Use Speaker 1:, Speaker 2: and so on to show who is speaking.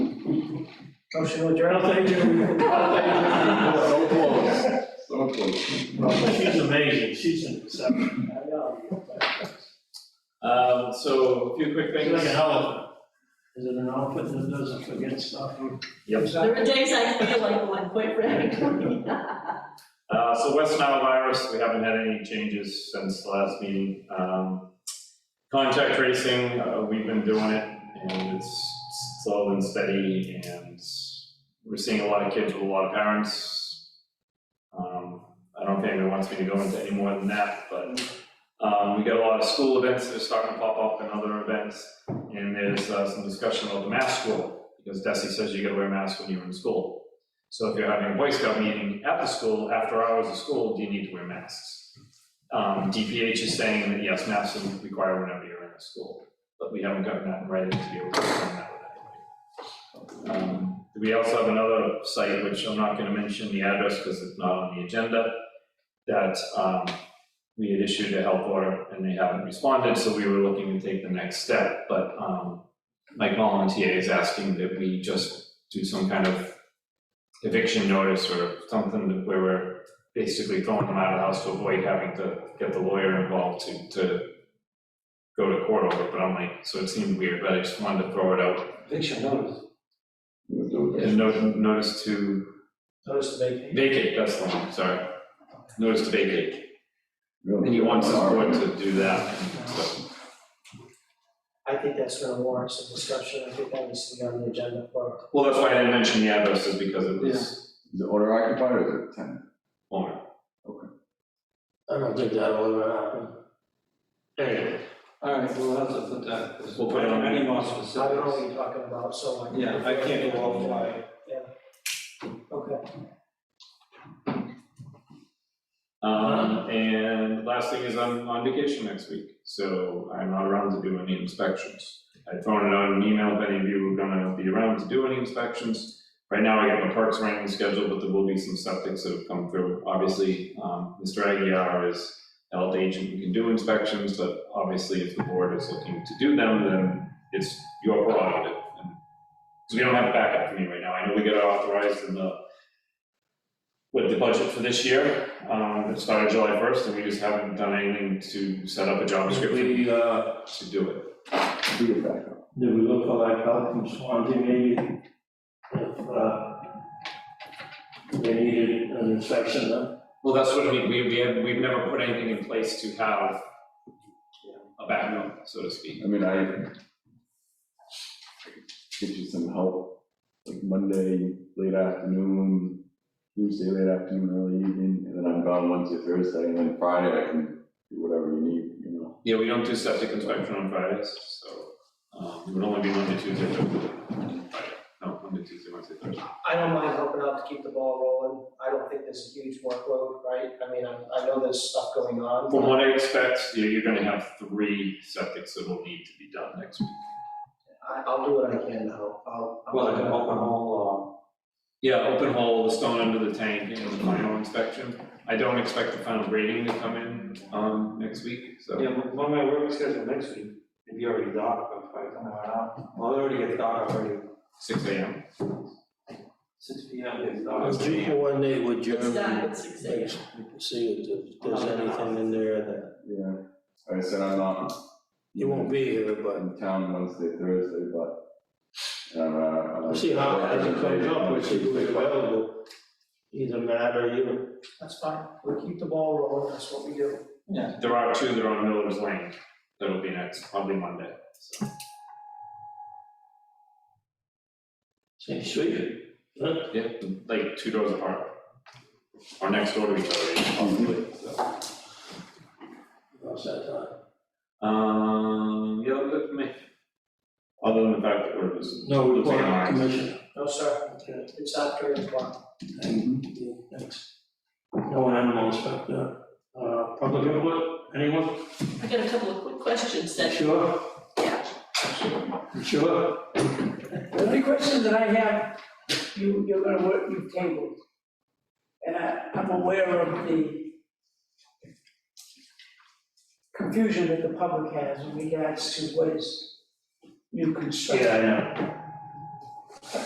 Speaker 1: Motion to adjourn.
Speaker 2: thank you.
Speaker 3: So close, so close.
Speaker 2: She's amazing, she's an exception.
Speaker 4: Um, so a few quick
Speaker 2: She's
Speaker 4: things.
Speaker 2: like an elephant. Is it an elephant that doesn't forget stuff?
Speaker 5: There are days I feel like one, quite frankly.
Speaker 4: Uh, so West Nile virus, we haven't had any changes since the last meeting. Um, contact tracing, uh, we've been doing it and it's slow and steady and we're seeing a lot of kids with a lot of parents. Um, I don't think anyone wants me to go into any more than that, but, um, we got a lot of school events that are starting to pop up and other events. And there's, uh, some discussion about the mask rule, because Desi says you gotta wear masks when you're in school. So if you're having a Boy Scout meeting at the school, after hours of school, do you need to wear masks? Um, DPH is saying that yes, masks are required whenever you're in a school, but we haven't gotten that in writing to be able to confirm that with anybody. Um, we also have another site, which I'm not gonna mention the address because it's not on the agenda, that, um, we had issued a health order and they haven't responded, so we were looking to take the next step, but, um, Mike Mullin, TA, is asking that we just do some kind of eviction notice or something that where we're basically throwing them out of the house to avoid having to get the lawyer involved to, to go to court over, it. but I'm like, so it seemed weird, but I just wanted to throw it out.
Speaker 1: Eviction notice.
Speaker 3: We'll do it.
Speaker 4: And no- notice to
Speaker 1: Notice to vacate.
Speaker 4: vacate, that's the one, sorry. Notice to vacate,
Speaker 3: We'll
Speaker 4: and he
Speaker 3: do it.
Speaker 4: wants his board to do that, so.
Speaker 1: I think that's gonna warrant some discussion. I think that needs to be on the agenda for.
Speaker 4: Well, that's why I didn't mention the addresses, because it was
Speaker 3: Is it owner occupied or is it tenant?
Speaker 4: owner.
Speaker 1: I don't think that'll ever happen.
Speaker 4: Anyway,
Speaker 6: All right, we'll have to put that, because
Speaker 4: We'll put it on.
Speaker 6: any more
Speaker 1: I don't know what
Speaker 6: specifics.
Speaker 1: you're talking about, so I.
Speaker 6: Yeah, I can't go off why.
Speaker 1: Okay.
Speaker 4: Um, and last thing is I'm on vacation next week, so I'm not around to do any inspections. I'd thrown it out in an email if any of you were gonna be around to do any inspections. Right now, I got my parks running scheduled, but there will be some septics that have come through. Obviously, um, Mr. Aguirre is health agent, who can do inspections, but obviously if the board is looking to do them, then it's your prerogative. Because we don't have backup for me right now. I know we got authorized in the, with the budget for this year, um, it started July first, and we just haven't done anything to set up a job description uh, to do it.
Speaker 3: Do it back up.
Speaker 2: Do we look for like help from Swansea maybe? If, uh, they needed an inspection, huh?
Speaker 4: Well, that's what we, we, we have, we've never put anything in place to have a backup, so to speak.
Speaker 3: I mean, I get you some help, like Monday, late afternoon, Tuesday, late afternoon, early evening, and then I'm gone Wednesday, Thursday, and then Friday I can do whatever you need, you know?
Speaker 4: Yeah, we don't do septic inspection on Fridays, so, um, it would only be Monday, Tuesday, Thursday, Friday. No, Monday, Tuesday, Wednesday, Thursday.
Speaker 1: I don't mind helping out to keep the ball rolling. I don't think there's a huge workload, right? I mean, I, I know there's stuff going on.
Speaker 4: From what I expect, you're, you're gonna have three septics that will need to be done next week.
Speaker 1: I, I'll do what I can to help. I'll. I'll-
Speaker 6: Well, like an open hole,
Speaker 4: Yeah, open hole, the stone under the tank, and the final inspection. I don't expect the final grading to come in, um, next week,
Speaker 6: uh,
Speaker 4: so.
Speaker 6: yeah, one of my work schedule next week, if you already docked, but if I come around, well, it already gets docked already,
Speaker 4: Six AM.
Speaker 6: six P M is
Speaker 7: Well,
Speaker 6: docked.
Speaker 7: G one day with Jeremy.
Speaker 5: It's done at six AM.
Speaker 7: See if there's anything in there that,
Speaker 3: Yeah, like I said, I'm not.
Speaker 7: you won't be here, but
Speaker 3: in town Wednesday, Thursday, but. uh,
Speaker 7: we'll see how, as it comes up, we'll see who's available. Either Matt or you.
Speaker 1: That's fine. We'll keep the ball rolling. That's what we do.
Speaker 4: There are two that are on Miller's Lane, that'll be next, probably Monday, so.
Speaker 7: Same street.
Speaker 4: Yeah, like two doors apart. Or next door to each other, possibly, so.
Speaker 7: How's that uh, time?
Speaker 4: Um, yeah, look at me. Other than the fact that we're just.
Speaker 7: No, we're
Speaker 4: Looking
Speaker 7: going
Speaker 4: at
Speaker 7: to commission.
Speaker 1: No, sir.
Speaker 7: uh, Okay,
Speaker 1: It's after eight o'clock.
Speaker 7: Thanks. Mm-hmm. No animal inspector. Uh, public input, anyone?
Speaker 5: I got a couple of quick questions that
Speaker 7: Sure?
Speaker 5: Yeah.
Speaker 7: Sure?
Speaker 8: The only question that I have, you, you're gonna work, you've tabled. And I, I'm aware of the confusion that the public has in regards to what is new construction.
Speaker 2: Yeah, I know.